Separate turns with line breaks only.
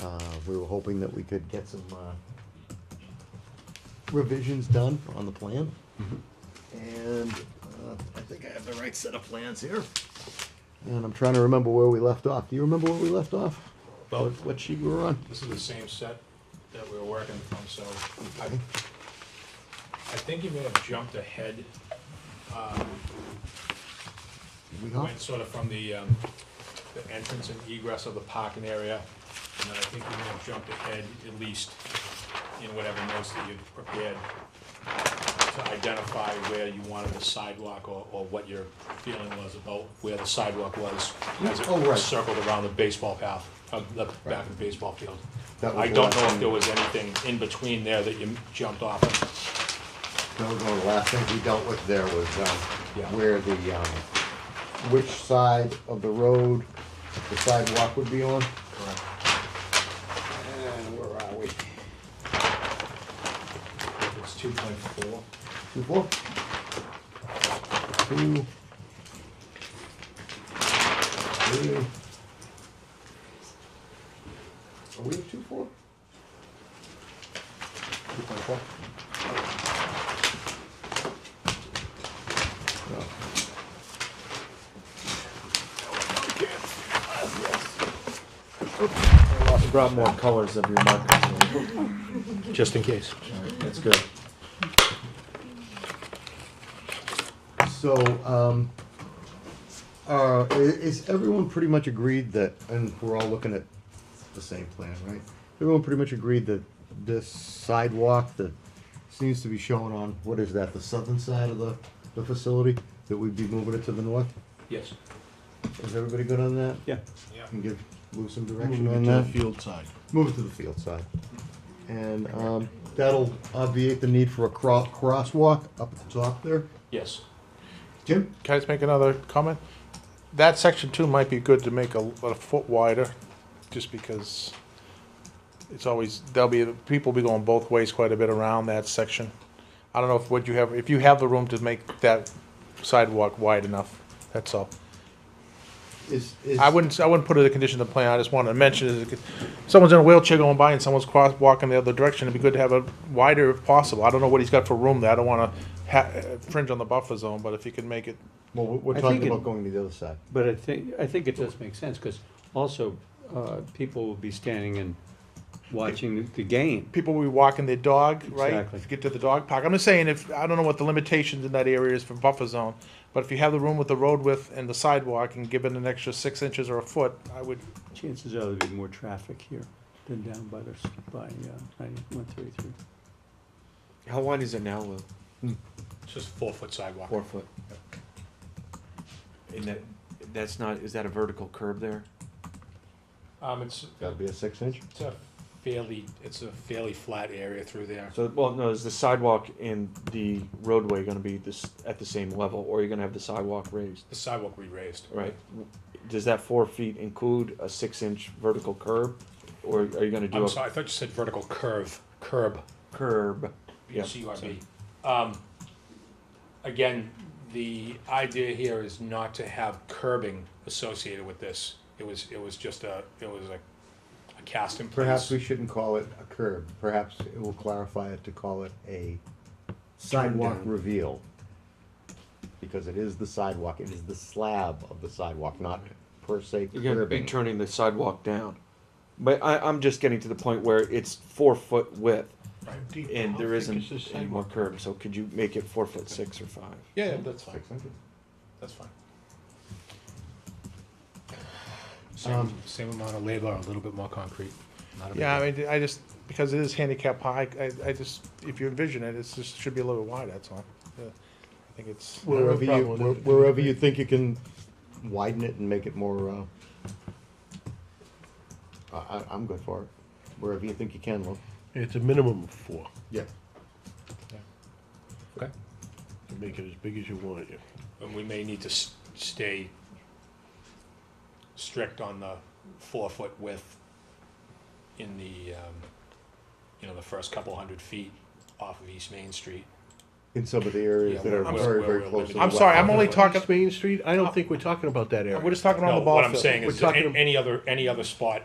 Uh, we were hoping that we could get some, uh, revisions done on the plan. And, uh, I think I have the right set of plans here. And I'm trying to remember where we left off. Do you remember where we left off?
Well-
What- What sheet we were on?
This is the same set that we were working from, so I, I think you may have jumped ahead, um,
We got-
went sort of from the, um, the entrance and egress of the parking area, and then I think you may have jumped ahead at least in whatever notes that you prepared to identify where you wanted the sidewalk or, or what your feeling was about where the sidewalk was as
Oh, right.
it circled around the baseball path, uh, the back of the baseball field.
That was
I
the
don't
last
know if
thing.
there was anything in between there that you jumped off of.
That was one of the last things we dealt with there was, um,
Yeah.
where the, um, which side of the road the sidewalk would be on.
Correct.
And where are we?
It's two point four.
Two, four? Two. Three. Are we at two, four? Two point four? No.
I brought more colors of your markers.
Just in case.
That's good.
So, um, uh, i- is everyone pretty much agreed that, and we're all looking at the same plan, right? Everyone pretty much agreed that this sidewalk that seems to be shown on, what is that, the southern side of the, the facility? That we'd be moving it to the north?
Yes.
Is everybody good on that?
Yeah.
Yeah.
Can give Lou some direction on that?
field side.
Move it to the field side. And, um, that'll obviate the need for a cro- crosswalk up at the top there.
Yes.
Jim?
Can I just make another comment? That section two might be good to make a, a foot wider, just because it's always, there'll be, people be going both ways quite a bit around that section. I don't know if, what you have, if you have the room to make that sidewalk wide enough, that's all.
Is, is.
I wouldn't, I wouldn't put it in a condition of the plan, I just wanted to mention, is if someone's in a wheelchair going by and someone's cross, walking the other direction, it'd be good to have a wider if possible. I don't know what he's got for room there, I don't wanna ha- uh, fringe on the buffer zone, but if you can make it
Well, we- we're
I
talking
think it-
about going to the other side.
But I think, I think it does make sense, because also, uh, people will be standing and watching the game.
people will be walking their dog, right?
Exactly.
If you Get to the dog park. I'm just saying, if I don't know what the limitations in that area is for buffer zone, but if you have the room with the road width and the sidewalk and give it an extra six inches or a foot, I would.
Chances are there'll be more traffic here than down by the, s- by, uh, ninety-one thirty-three.
How wide is it now, Lou?
It's just four foot sidewalk.
Four foot. And that, that's not, is that a vertical curb there?
Um, it's,
Gotta be a six inch.
it's a fairly, it's a fairly flat area through there.
So, well, no, is the sidewalk and the roadway gonna be this, at the same level, or are you gonna have the sidewalk raised?
The sidewalk we raised.
Right, does that four feet include a six inch vertical curb, or are you gonna do
I'm
a
sorry, I thought you said vertical curve, curb,
curb? Yeah,
C U R B.
sorry.
Um, again, the idea here is not to have curbing associated with this. It was, it was just a, it was like a cast in
Perhaps
place.
we shouldn't call it a curb. Perhaps it will clarify it to call it a sidewalk
down.
reveal. Because it is the sidewalk, it is the slab of the sidewalk, not per se
You're gonna be
curbing.
turning the sidewalk down. But I, I'm just getting to the point where it's four foot width, and there isn't any more curb, so could you make it four foot six or five?
Yeah, that's fine,
Six inches.
that's fine.
Um,
Um,
Same, same amount of labor, a little bit more concrete. Not a big
Yeah,
deal.
I mean, I just because it is handicap high. I, I just if you envision it, it's just should be a little bit wide. That's all. Yeah. I think it's.
Wherever you, where- wherever you think you can widen it and make it more, uh, I, I, I'm good for it. Wherever you think you can, look.
It's a minimum of four.
Yeah.
Okay.
You Make it as big as you want it.
And we may need to s- stay strict on the four-foot width in the, um, you know, the first couple hundred feet off of East Main Street.
In some of the areas
Yeah,
that are
where-
very,
where
very
we're
close to the
living.
I'm sorry. I'm
wetland.
only talking.
East Main Street, I don't think we're talking about that area.
We're just talking on
No,
the ball
what I'm
field.
saying
We're
is,
talking
a- any other, any other spot